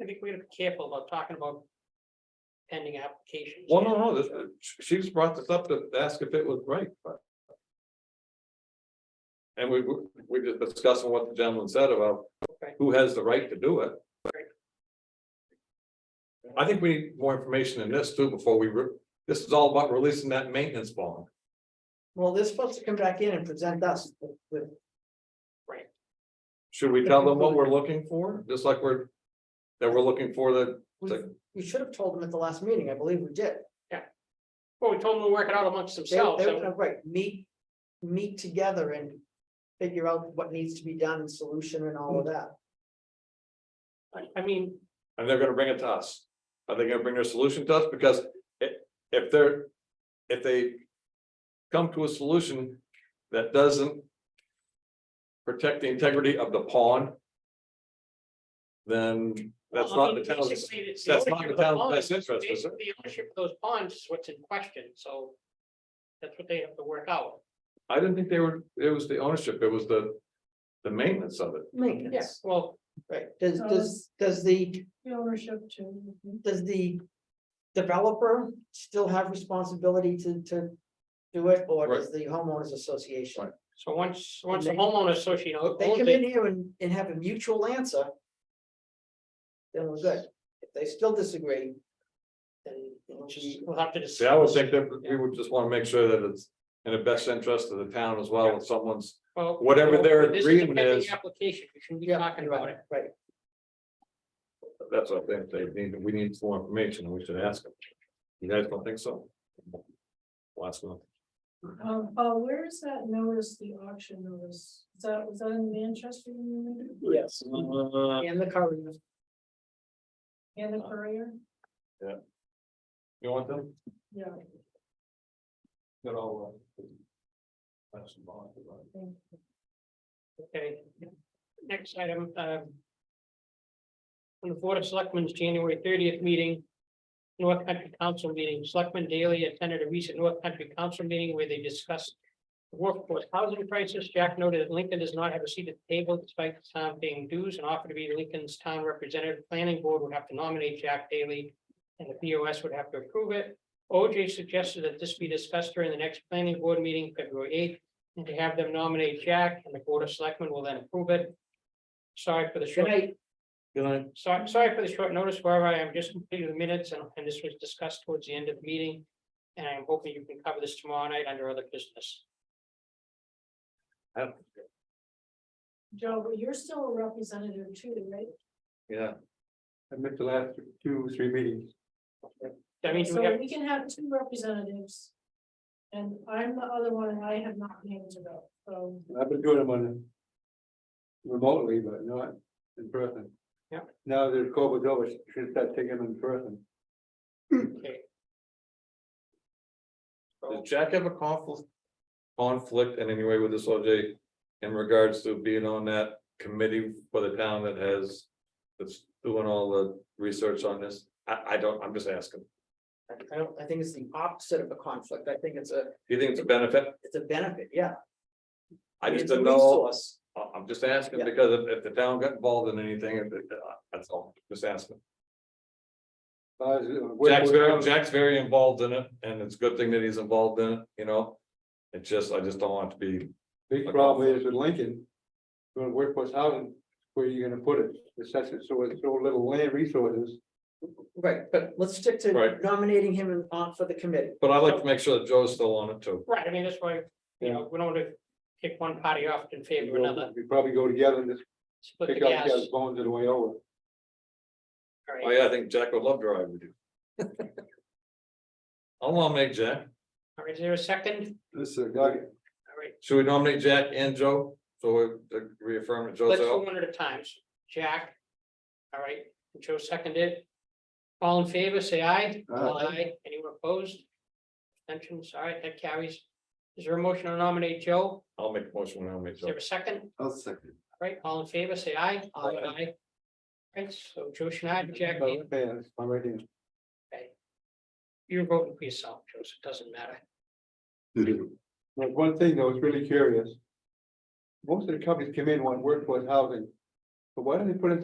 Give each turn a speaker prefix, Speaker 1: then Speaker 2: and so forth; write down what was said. Speaker 1: I think we gotta be careful about talking about pending applications.
Speaker 2: Well, no, no, this, she's brought this up to ask if it was right, but. And we, we- we just discussing what the gentleman said about
Speaker 1: Okay.
Speaker 2: who has the right to do it. I think we need more information in this too before we, re- this is all about releasing that maintenance bond.
Speaker 3: Well, they're supposed to come back in and present us with- with,
Speaker 2: Should we tell them what we're looking for, just like we're, that we're looking for the,
Speaker 3: we- we should have told them at the last meeting, I believe we did.
Speaker 1: Well, we told them to work it out amongst
Speaker 3: They, they
Speaker 1: themselves.
Speaker 3: were
Speaker 1: and-
Speaker 3: gonna, right, meet, meet together and figure out what needs to be done, and solution and all of
Speaker 4: Mm.
Speaker 3: that.
Speaker 1: I I mean,
Speaker 2: and they're gonna bring it to us. Are they gonna bring their solution to us? Because i- if they're, if they. Come to a solution that doesn't. Protect the integrity of the pond. Then that's
Speaker 1: Well, I
Speaker 2: not the
Speaker 1: mean,
Speaker 2: town's,
Speaker 1: basically, it's
Speaker 2: that's not
Speaker 1: ownership
Speaker 2: the
Speaker 1: of
Speaker 2: town's
Speaker 1: bonds.
Speaker 2: best interest, is it?
Speaker 1: Basically, The ownership of those bonds is what's in question, so that's what they have to work out.
Speaker 2: I didn't think they were, it was the ownership, it was the. The maintenance of it.
Speaker 3: Maintenance,
Speaker 1: Well,
Speaker 3: right, does,
Speaker 4: So
Speaker 3: does, does the,
Speaker 4: The ownership to.
Speaker 3: does the developer still have responsibility to, to do it, or does the homeowners association?
Speaker 2: Right.
Speaker 1: so once, once the
Speaker 3: they-
Speaker 1: homeowner association o-
Speaker 3: They
Speaker 1: owns
Speaker 3: come in
Speaker 1: it,
Speaker 3: here and, and have a mutual answer. Then we're good, if they still disagree, then it'll be-
Speaker 1: we'll have to
Speaker 2: See, I would
Speaker 1: decide.
Speaker 2: think that we would just wanna make sure that it's in the best interest of the town as well, if someone's.
Speaker 1: Well,
Speaker 2: whatever
Speaker 1: well,
Speaker 2: their
Speaker 1: this a
Speaker 2: agreement
Speaker 1: pending
Speaker 2: is-
Speaker 1: Application, we shouldn't be
Speaker 3: Yeah,
Speaker 1: talking about
Speaker 3: Right,
Speaker 1: it.
Speaker 3: right.
Speaker 2: That's what I think, they need, we need some more information, and we should ask them. You guys don't think so? Last month,
Speaker 4: Um, Paul, where is that notice, the auction notice? Is that, was that in Manchester? you mean?
Speaker 3: Yes. And the courier.
Speaker 4: And the courier?
Speaker 2: you want them?
Speaker 4: Yeah.
Speaker 2: They're all, uh, that's the bond, uh, right?
Speaker 1: Okay, next item, um. On the Board of Selectmen's January thirtieth meeting, North Country Council meeting, Selectman Daly attended a recent North Country Council meeting where they discussed. the Workforce housing crisis, Jack noted that Lincoln does not have a seat at the table despite the town paying dues and offered to be Lincoln's town representative. Planning Board would have to nominate Jack Daly. And the BOS would have to approve it. OJ suggested that this be discussed during the next planning board meeting, February eighth. And to have them nominate Jack and the Board of Selectmen will then approve it. Sorry for the
Speaker 3: Good
Speaker 1: short,
Speaker 3: night,
Speaker 2: Good night.
Speaker 1: sorry, sorry for the short notice, however, I am just completing the minutes and, and this was discussed towards the end of the meeting. And I'm hoping you can cover this tomorrow night under other business.
Speaker 4: Joe, but you're still a representative too, right?
Speaker 2: Yeah. I missed the last two, three meetings.
Speaker 1: I mean, do we
Speaker 4: So
Speaker 1: have,
Speaker 4: we can have two representatives. And I'm the other one and I have not been able to vote, so.
Speaker 5: I've been doing them on. a- Remotely, but not in person.
Speaker 1: Yep.
Speaker 5: Now that COVID's over, she should start taking them in person.
Speaker 1: okay,
Speaker 2: Does Jack have a conflict? Conflict in any way with this OJ in regards to being on that committee for the town that has. That's doing all the research on this, I, I don't, I'm just asking,
Speaker 3: I don't, I think it's the opposite of a conflict, I think it's a,
Speaker 2: do you think it's a benefit?
Speaker 3: it's a benefit, yeah.
Speaker 2: I just
Speaker 3: It's a
Speaker 2: don't know.
Speaker 3: resource.
Speaker 2: I- I'm just asking
Speaker 3: Yeah.
Speaker 2: because if, if the town got involved in anything, if it- uh, that's all, just asking.
Speaker 5: uh,
Speaker 2: Jack's very, Jack's very involved in it and it's a good thing that he's involved in it, you know? It's just, I just don't want it to be,
Speaker 5: Big problem is with Lincoln. Doing workforce housing, where you gonna put it, it's such, a- so it's so little land resources.
Speaker 3: Right, but let's stick to
Speaker 2: Right.
Speaker 3: nominating him and on for the committee.
Speaker 2: but I like to make sure that Joe's still on it too.
Speaker 1: right, I mean, that's why, you know, we don't want to pick one party off in favor of another,
Speaker 5: We probably go together and just
Speaker 1: split the
Speaker 5: pick up each
Speaker 1: gas.
Speaker 5: other's bones on the way over.
Speaker 1: All
Speaker 2: Oh
Speaker 1: right.
Speaker 2: yeah, I think Jack would love to ride with you. I'll nominate Jack.
Speaker 1: All right, is there a second?
Speaker 5: This is Doug,
Speaker 1: All right,
Speaker 2: Should we nominate Jack and Joe? So we uh, reaffirm that Joe's
Speaker 1: let's go
Speaker 2: out.
Speaker 1: one at a time. Jack. All right, Joe seconded. All in favor, say aye.
Speaker 5: Aye.
Speaker 1: Anyone opposed? Abstentions? All right, that carries. Is there a motion to nominate Joe?
Speaker 2: I'll make a motion, to nominate
Speaker 1: Is
Speaker 2: Joe.
Speaker 1: there a second?
Speaker 5: I'll second.
Speaker 1: All Right, all in favor, say aye.
Speaker 3: Aye.
Speaker 1: Aye. Right, so Joe Schneider, Jack,
Speaker 5: Yeah, uh, that's my right hand.
Speaker 1: you're voting for yourself, Joe, so it doesn't matter.
Speaker 5: Like, one thing though, it's really curious. Most of the companies come in want workforce housing. But why don't they put in